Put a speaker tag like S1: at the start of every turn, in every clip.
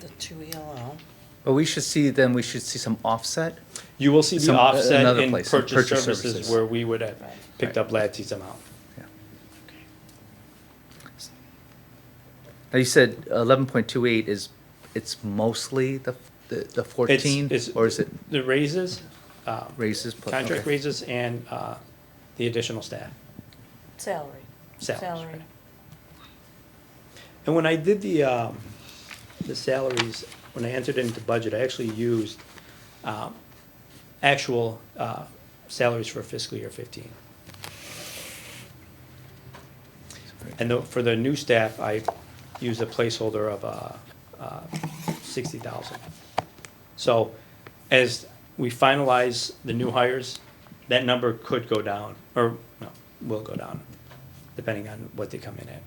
S1: the two E yellow.
S2: But we should see, then we should see some offset.
S3: You will see the
S2: Some- uh,
S3: offset
S2: another
S3: in
S2: place, in
S3: purchase
S2: purchase
S3: services
S2: services.
S3: where we would have
S1: Right.
S3: picked up Latsy's amount.
S2: Now you said eleven point two eight is, it's mostly the, the the
S3: It's-
S2: fourteen,
S3: it's-
S2: or is it
S3: The raises, um,
S2: raises? plus-
S3: contract
S2: okay.
S3: raises and uh, the additional staff.
S1: Salary.
S3: Salaries, right. And when I did the, um, the salaries, when I entered into budget, I actually used, um, actual, uh, salaries for fiscal year fifteen. And the- for the new staff, I used a placeholder of, uh, uh, sixty thousand. So as we finalize the new hires, that number could go down, or, no, will go down, depending on what they come in at.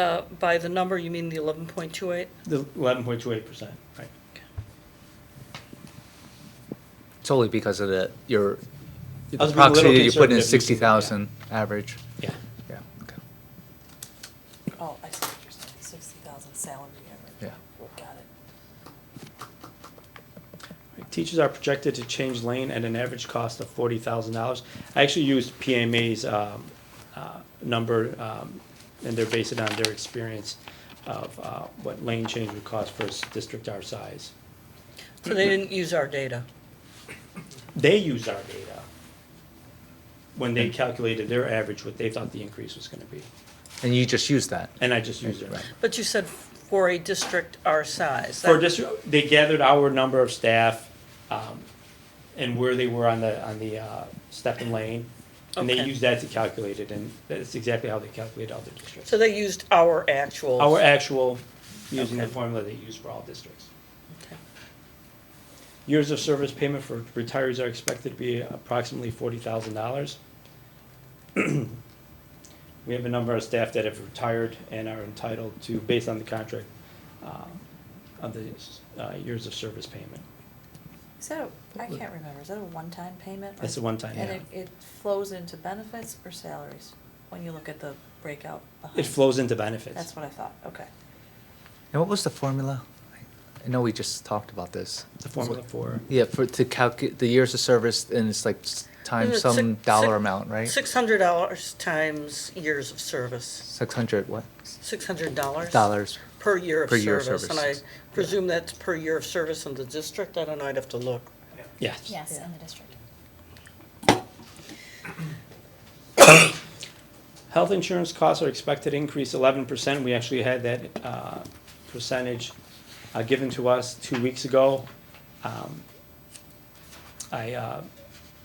S1: Uh, by the number, you mean the eleven point two eight?
S3: The eleven point two eight percent, right.
S2: Solely because of the, your,
S3: I
S2: the
S3: was being a little
S2: proxy, you put in
S3: conservative,
S2: sixty thousand average.
S3: Yeah.
S2: Yeah, okay,
S1: Oh, I see what you're saying, sixty thousand salary average.
S2: yeah.
S1: Got it.
S3: Teachers are projected to change lane at an average cost of forty thousand dollars. I actually used PMA's um, uh, number, um, and they're based on their experience of uh, what lane change would cost for a s- district our size.
S1: So they didn't use our data.
S3: They used our data when they calculated their average, what they thought the increase was gonna be,
S2: And you just use that?
S3: and I just used it.
S2: Right.
S1: But you said for a district our size.
S3: For
S1: That-
S3: just, they gathered our number of staff, um, and where they were on the, on the, uh, step and lane. And they
S1: Okay.
S3: used that to calculate it, and that's exactly how they calculate all the districts.
S1: So they used our actual.
S3: Our actual, using the
S1: Okay.
S3: formula they use for all districts.
S1: Okay.
S3: Years of service payment for retirees are expected to be approximately forty thousand dollars. We have a number of staff that have retired and are entitled to, based on the contract, uh, of the, uh, years of service payment.
S4: Is that, a- I can't remember, is that a one-time payment? or-
S3: That's a one-time,
S4: And
S3: yeah.
S4: it, it flows into benefits or salaries, when you look at the breakout behind?
S3: It flows into benefits.
S4: That's what I thought, okay.
S2: And what was the formula? I know we just talked about this.
S3: The formula for,
S2: Yeah, for, to calculate the years of service, and it's like s- times
S1: Is it
S2: some
S1: six-
S2: dollar
S1: six-
S2: amount, right?
S1: Six hundred dollars times years of service.
S2: Six hundred what?
S1: Six hundred dollars?
S2: Dollars.
S1: Per year of
S2: Per year of
S1: service. And I
S2: services.
S1: presume that's per year of service in the district. I don't know, I'd have to look.
S3: yes.
S5: Yes,
S4: Yeah.
S5: in the district.
S3: Health insurance costs are expected to increase eleven percent. We actually had that uh, percentage uh, given to us two weeks ago. Um, I uh,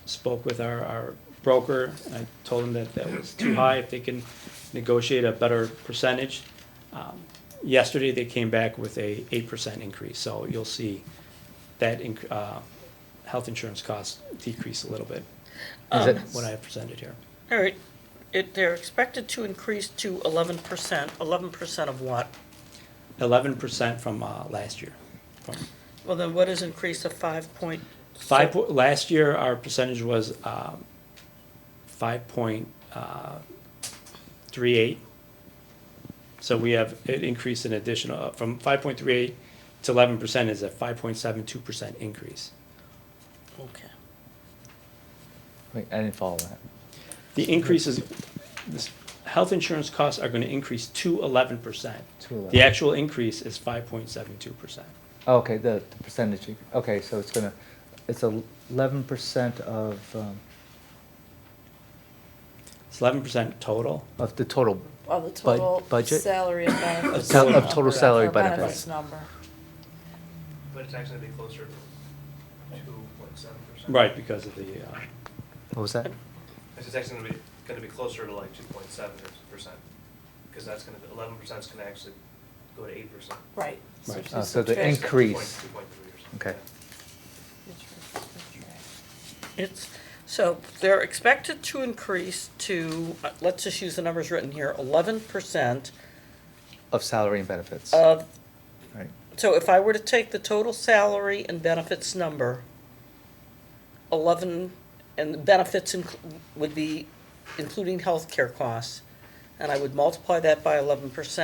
S3: spoke with our, our broker, and I told him that that was too high, if they can negotiate a better percentage. Um, Yesterday, they came back with a eight percent increase, so you'll see that inc- uh, health insurance costs decrease a little bit, um,
S2: Is it-
S3: what I have presented here.
S1: All right, it, they're expected to increase to eleven percent. Eleven percent of what?
S3: eleven percent from uh, last year. From
S1: Well, then what is increase of five point?
S3: Five, po- last year, our percentage was um, five point uh, three eight. So we have an increase in additional, uh, from five point three eight to eleven percent is a five point seven two percent increase.
S1: Okay.
S2: Wait, I didn't follow that.
S3: The increase is, this, health insurance costs are gonna increase to eleven percent.
S2: To 11.
S3: The actual increase is five point seven two percent.
S2: Oh, Okay, the the percentage, okay, so it's gonna, it's eleven percent of, um,
S3: It's eleven percent total.
S2: of the total,
S4: Of Oh, the total
S2: budget?
S4: salary and benefits.
S3: Of total- of
S4: number,
S2: total salary
S4: or
S2: benefits.
S4: number.
S6: But it's actually be closer to two point seven percent.
S3: Right, because of the, uh,
S2: what was that?
S6: It's actually gonna be, gonna be closer to like two point seven percent, because that's gonna, eleven percent's gonna actually go to eight percent.
S4: Right.
S3: Right.
S4: just
S2: Oh, so the
S4: subtract-
S2: increase-
S6: Two point three percent.
S2: Okay.
S4: subtract- subtract.
S1: It's, so they're expected to increase to, uh, let's just use the numbers written here, eleven percent
S2: Of salary and benefits,
S1: of,
S2: right?
S1: so if I were to take the total salary and benefits number, eleven, and the benefits inc- would be including healthcare costs, and I would multiply that by eleven percent.